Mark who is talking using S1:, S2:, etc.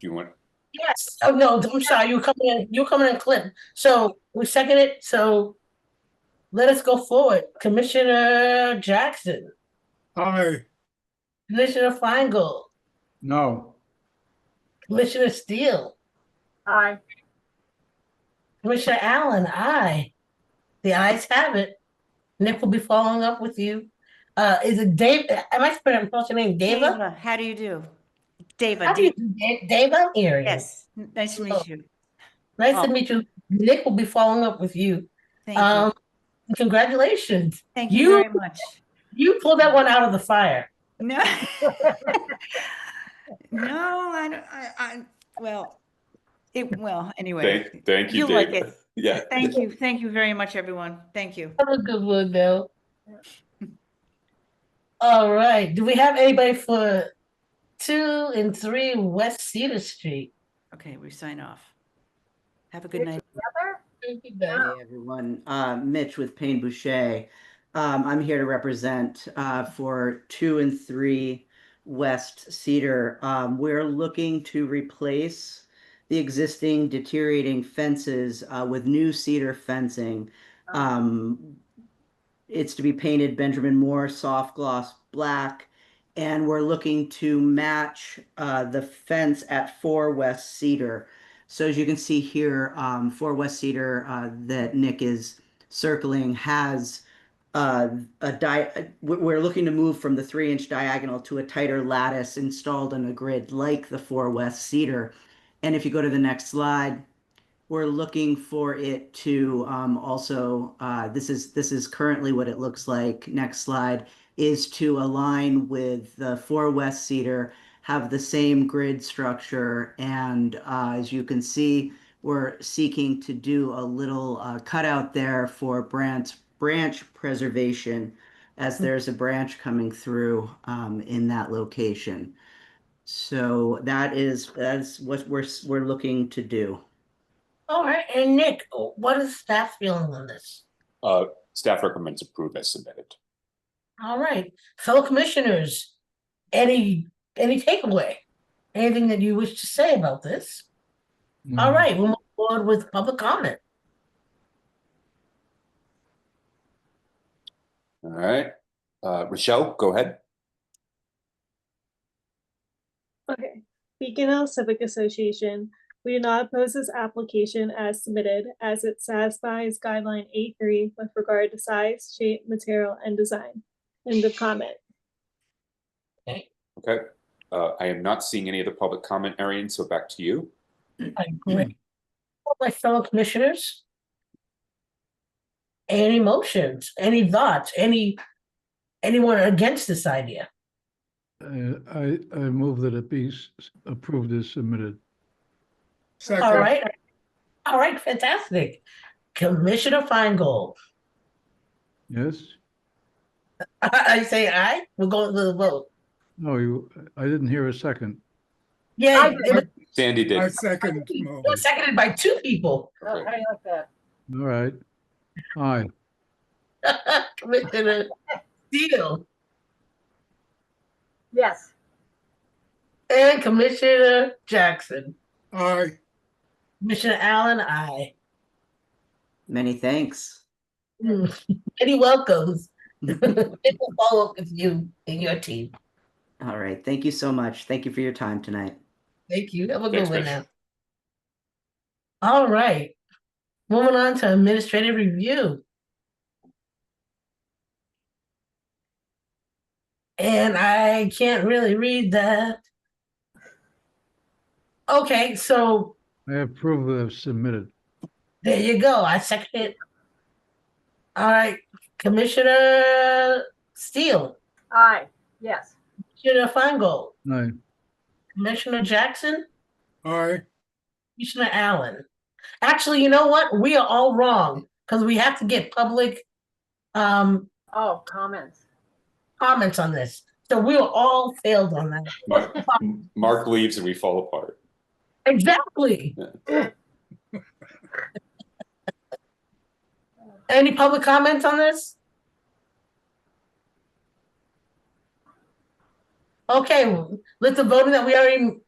S1: Do you want,
S2: Yes, oh no, I'm sorry, you were coming in, you were coming in Clint. So we second it, so let us go forward. Commissioner Jackson,
S3: Aye,
S2: Commissioner Feingold,
S3: no.
S2: Commissioner Steele,
S4: Aye.
S2: Commissioner Allen, aye. The ayes have it. Nick will be following up with you. Uh, is it Dave, am I pronouncing your name Dava?
S4: Dava, how do you do?
S2: How
S4: Dava,
S2: do you,
S4: do-
S2: Da- Dava, Erie?
S4: yes, n- nice to
S2: Oh,
S4: meet you.
S2: Nice to
S4: Oh.
S2: meet you. Nick will be following up with you.
S4: Thank you.
S2: Um, congratulations.
S4: Thank you
S2: you-
S4: very much.
S2: You pulled that one out of the fire.
S4: No. No, I don't, I, I, well, it, well, anyway.
S1: thank, thank you,
S4: You'll like
S1: Dave.
S4: it.
S1: Yeah.
S4: Thank you, thank you very much, everyone. Thank you.
S2: That was a good one, though. All right, do we have anybody for two and three West Cedar Street?
S4: Okay, we sign off. Have a good night.
S5: Hey, everyone. Uh, Mitch with Payne Boucher. Um, I'm here to represent uh, for two and three West Cedar. Um, we're looking to replace the existing deteriorating fences uh, with new cedar fencing. Um, it's to be painted Benjamin Moore soft gloss black, and we're looking to match uh, the fence at four West Cedar. So as you can see here, um, for West Cedar, uh, that Nick is circling has, uh, a di, uh, we- we're looking to move from the three inch diagonal to a tighter lattice installed on a grid like the four West Cedar. And if you go to the next slide, we're looking for it to, um, also, uh, this is, this is currently what it looks like. Next slide is to align with the four West Cedar have the same grid structure. And uh, as you can see, we're seeking to do a little uh, cutout there for branch, branch preservation as there's a branch coming through um, in that location. So that is, that's what we're, s- we're looking to do.
S2: All right, and Nick, what is staff feeling on this?
S1: Uh, staff recommends approve as submitted.
S2: All right, fellow commissioners, any, any takeaway? Anything that you wish to say about this? All right, we'll move forward with public comment.
S1: All right, uh, Rochelle, go ahead.
S6: Okay, Beacon Hill Civic Association, we do not oppose this application as submitted as it satisfies guideline A three with regard to size, shape, material, and design. End of comment.
S1: Okay, uh, I am not seeing any other public comment, Arian, so back to you.
S2: I agree. All My fellow commissioners? Any motions, any thoughts, any, anyone against this idea?
S7: Uh, I, I I move that it be s- s- approved as submitted.
S2: All
S3: Second,
S2: right, all right, fantastic. Commissioner Feingold,
S7: Yes?
S2: I say aye, we're going to the vote.
S7: No, you, I didn't hear a second.
S2: Yeah, it was-
S1: Sandy
S3: I
S1: did.
S3: second. the
S2: it was
S3: motion.
S2: seconded by two people.
S1: Okay.
S4: like that?
S7: All right. Aye,
S2: Commissioner Steele
S4: Yes.
S2: and Commissioner Jackson.
S3: Aye,
S2: Commissioner Allen, aye.
S5: Many thanks.
S2: Hmm, Any welcomes. It will follow up with you and your team.
S5: All right. Thank you so much. Thank you for your time tonight.
S2: Thank you. Have a good
S1: Thanks,
S2: one
S1: Chris.
S2: now. All right. Moving on to administrative review. And I can't really read that. Okay, so
S7: I approve of submitted.
S2: there you go. I second it. All right, Commissioner Steele,
S4: Aye, yes.
S2: Commissioner Feingold,
S7: Aye,
S2: Commissioner Jackson,
S3: aye,
S2: Commissioner Allen. Actually, you know what? We are all wrong because we have to get public um
S4: Oh, comments.
S2: comments on this. So we were all failed on that.
S1: Mark- Mark leaves and we fall apart.
S2: Exactly. Any public comments on this? Okay, with the voting that we already